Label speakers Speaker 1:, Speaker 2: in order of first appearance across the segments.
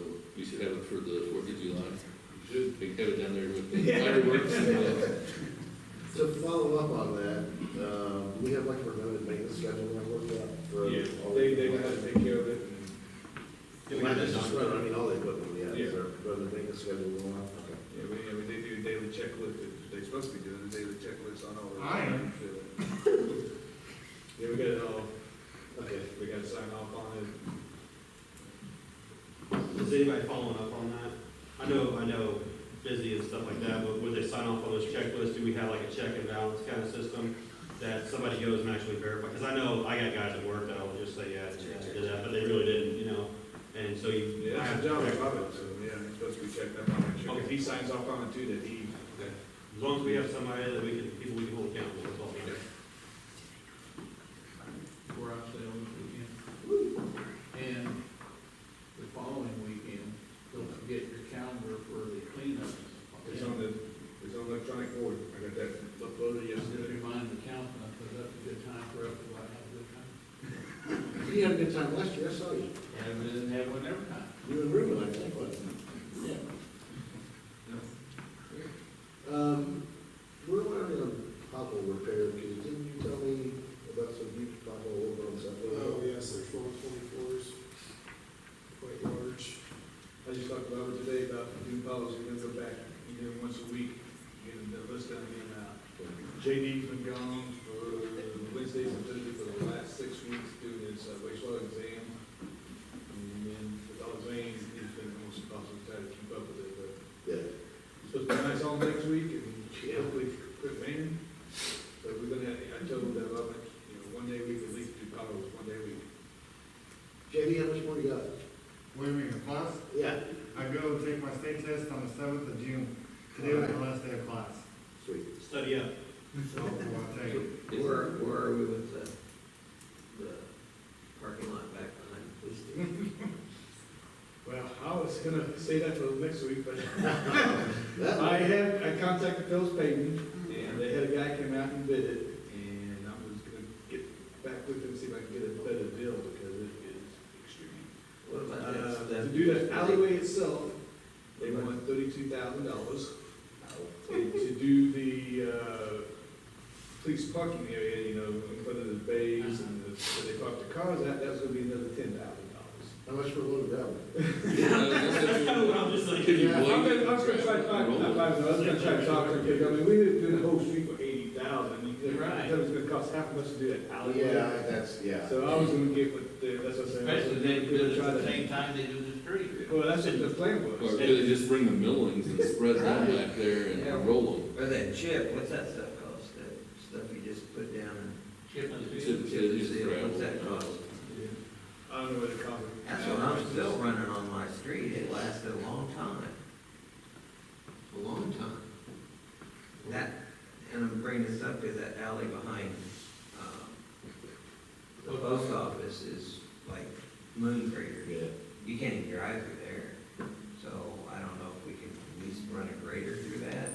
Speaker 1: have it for the Fourth of July.
Speaker 2: Should-
Speaker 1: We have it down there with the fireworks and the,
Speaker 3: To follow up on that, um, we have like a remote maintenance schedule that worked out for.
Speaker 2: Yeah,
Speaker 3: all
Speaker 2: they,
Speaker 3: the-
Speaker 2: they know how to take care of it and.
Speaker 3: Not just run, I mean, all the equipment we have,
Speaker 2: Yeah.
Speaker 3: is our remote maintenance schedule going on. Okay.
Speaker 2: Yeah, we, I mean, they do a daily checklist, they're supposed to be doing a daily checklist on all the.
Speaker 4: I am.
Speaker 2: Yeah, we got it all,
Speaker 3: Okay.
Speaker 2: we gotta sign off on it.
Speaker 5: Is anybody following up on that? I know, I know, busy and stuff like that, but would they sign off on those checklists? Do we have like a check and balance kind of system that somebody goes and actually verifies? Because I know I got guys at work that will just say, yeah, I did that, but they really didn't, you know? And so you.
Speaker 2: Yeah,
Speaker 5: I
Speaker 2: that's
Speaker 5: have
Speaker 2: the
Speaker 5: to
Speaker 2: job
Speaker 5: check.
Speaker 2: of it, so, yeah, it's supposed to be checked up on it,
Speaker 5: Okay.
Speaker 2: if he signs off on it too, that he, that.
Speaker 5: As long as we have somebody that we can, people we can hold accountable, that's all we
Speaker 2: Yeah.
Speaker 5: have.
Speaker 4: We're out there on the weekend. And the following weekend, don't forget your calendar for the cleanup.
Speaker 2: It's on the, it's on electronic board, I got that uploaded
Speaker 4: Just to
Speaker 2: yesterday.
Speaker 4: remind the council, because that's a good time for everybody to have a good time.
Speaker 3: You had a good time last year, I saw you.
Speaker 4: And we didn't have one every time.
Speaker 3: You and Ruben, I think, wasn't it? Yeah. Um, we're wondering on pothole repair, because didn't you tell me about some huge pothole over on
Speaker 6: Oh,
Speaker 3: South?
Speaker 6: yes, there's one twenty-fours, quite large.
Speaker 2: I just talked about it today, about the new policy, that's a back, you do it once a week, you get a list down in, uh, JD's been gone for Wednesdays and Thursdays for the last six weeks doing his uh, wastewater exam. And then with all the veins, he's been almost impossible to try to keep up with it, but
Speaker 3: Yeah.
Speaker 2: it's supposed to be nice all next week and hopefully quit raining. But we're gonna, have- I told him that, I'm like, you know, one day we can at least do potholes, one day we.
Speaker 3: JD, how much more you got?
Speaker 7: What do you mean, class?
Speaker 3: Yeah.
Speaker 7: I go take my state test on the seventh of June. Today was the last day of class.
Speaker 3: Sweet.
Speaker 5: Study up.
Speaker 7: So I'll take it.
Speaker 8: Where, where are we with the, the parking lot back behind the police station?
Speaker 2: Well, I was gonna say that for next week, but
Speaker 3: That,
Speaker 2: I had, I contacted Phil's Payton, and they had a guy come out and bid it, and I was gonna get back with them, see if I can get a better deal, because it is extremely.
Speaker 8: What about that
Speaker 2: Uh,
Speaker 8: stuff?
Speaker 2: to do the alleyway itself, they want thirty-two thousand dollars. To do the, uh, police parking area, you know, in front of the bays and the, where they park the cars at, that's gonna be another ten thousand dollars.
Speaker 3: how much for a load of that one?
Speaker 5: That's kind of
Speaker 1: uh,
Speaker 5: what I'm just like.
Speaker 1: Could you
Speaker 3: Yeah,
Speaker 2: I'm
Speaker 1: blame
Speaker 2: gonna,
Speaker 1: it?
Speaker 2: I'm gonna try to find, not find, I was gonna try to talk to him, because I mean, we didn't do the whole street for eighty thousand.
Speaker 4: Right.
Speaker 2: That was gonna cost half of us to do that alleyway.
Speaker 3: Yeah, that's, yeah.
Speaker 2: So I was gonna get with, the- that's what I said. I was
Speaker 4: Especially they do
Speaker 2: gonna
Speaker 4: it
Speaker 2: try
Speaker 4: at
Speaker 2: to-
Speaker 4: the same time they do the street.
Speaker 2: Well, that's what the plan
Speaker 1: Or
Speaker 2: was.
Speaker 1: could they just bring the millings and spread them back there and roll them?
Speaker 8: Or that chip, what's that stuff cost, that stuff you just put down and
Speaker 4: Chip and
Speaker 1: It's,
Speaker 4: seal.
Speaker 1: it's
Speaker 8: chip and
Speaker 1: just
Speaker 8: seal, what's that
Speaker 1: gravel.
Speaker 8: cost?
Speaker 2: I don't know what it cost.
Speaker 8: That's what I'm still running on my street, it lasted a long time. A long time. That, and I'm bringing this up, is that alley behind, um, the post office is like moon crater.
Speaker 3: Yeah.
Speaker 8: you can't even drive through there. So I don't know if we can at least run a grader through that.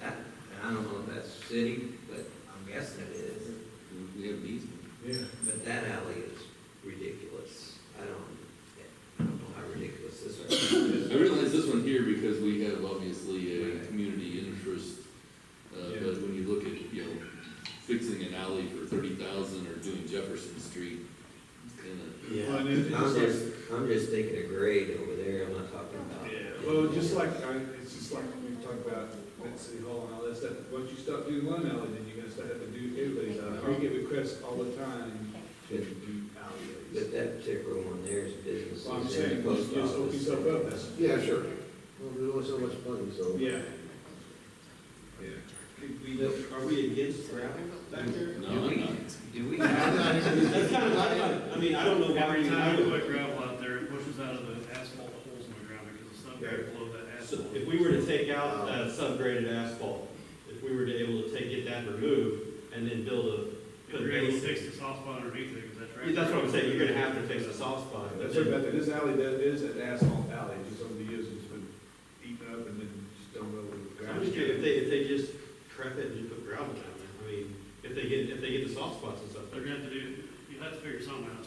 Speaker 8: That, and I don't know if that's city, but I'm guessing it is.
Speaker 1: We have these.
Speaker 2: Yeah.
Speaker 8: But that alley is ridiculous. I don't, I don't know how ridiculous this is.
Speaker 1: I realize this one here because we have obviously a community interest. Uh,
Speaker 2: Yeah.
Speaker 1: but when you look at, you know, fixing an alley for thirty thousand or doing Jefferson Street, uh, it's kinda,
Speaker 2: Well, and it's
Speaker 8: I'm
Speaker 2: just like-
Speaker 8: just, I'm just thinking a grade over there. I'm not talking about.
Speaker 2: Yeah, well, just like, I, it's just like we talked about at City Hall and all that stuff, once you stop doing one alley, then you're gonna start having to do everybody's alley. We get requests all the time to do alleyways.
Speaker 8: But that particular one there is business.
Speaker 2: Well, I'm saying, you just open yourself up, that's,
Speaker 3: Yeah, sure. Well, there's only so much money, so.
Speaker 2: yeah. Yeah.
Speaker 5: Could we, are we against gravel back there?
Speaker 1: no, I'm not.
Speaker 8: Do we?
Speaker 5: That's kind of, I, I mean, I don't know why.
Speaker 9: Every
Speaker 5: we-
Speaker 9: time we put gravel out there, it pushes out of the asphalt holes in the ground because it's not very below that
Speaker 5: So
Speaker 9: asphalt.
Speaker 5: If we were to take out that subgraded asphalt, if we were to able to take, get that removed and then build a.
Speaker 9: If you're able to fix the soft spot underneath it, because that's right.
Speaker 5: Yeah, That's what I'm saying, you're gonna have to fix the soft spot.
Speaker 2: That's what about that, this alley, that is an asphalt alley, just over the years, it's been eaten up and then just don't know what the
Speaker 5: I'm
Speaker 2: ground
Speaker 5: just kidding, if they, if they just prep it and just put gravel down there, I mean, if they get, if they get the soft spots and stuff.
Speaker 9: They're gonna have to do, you have to figure something out.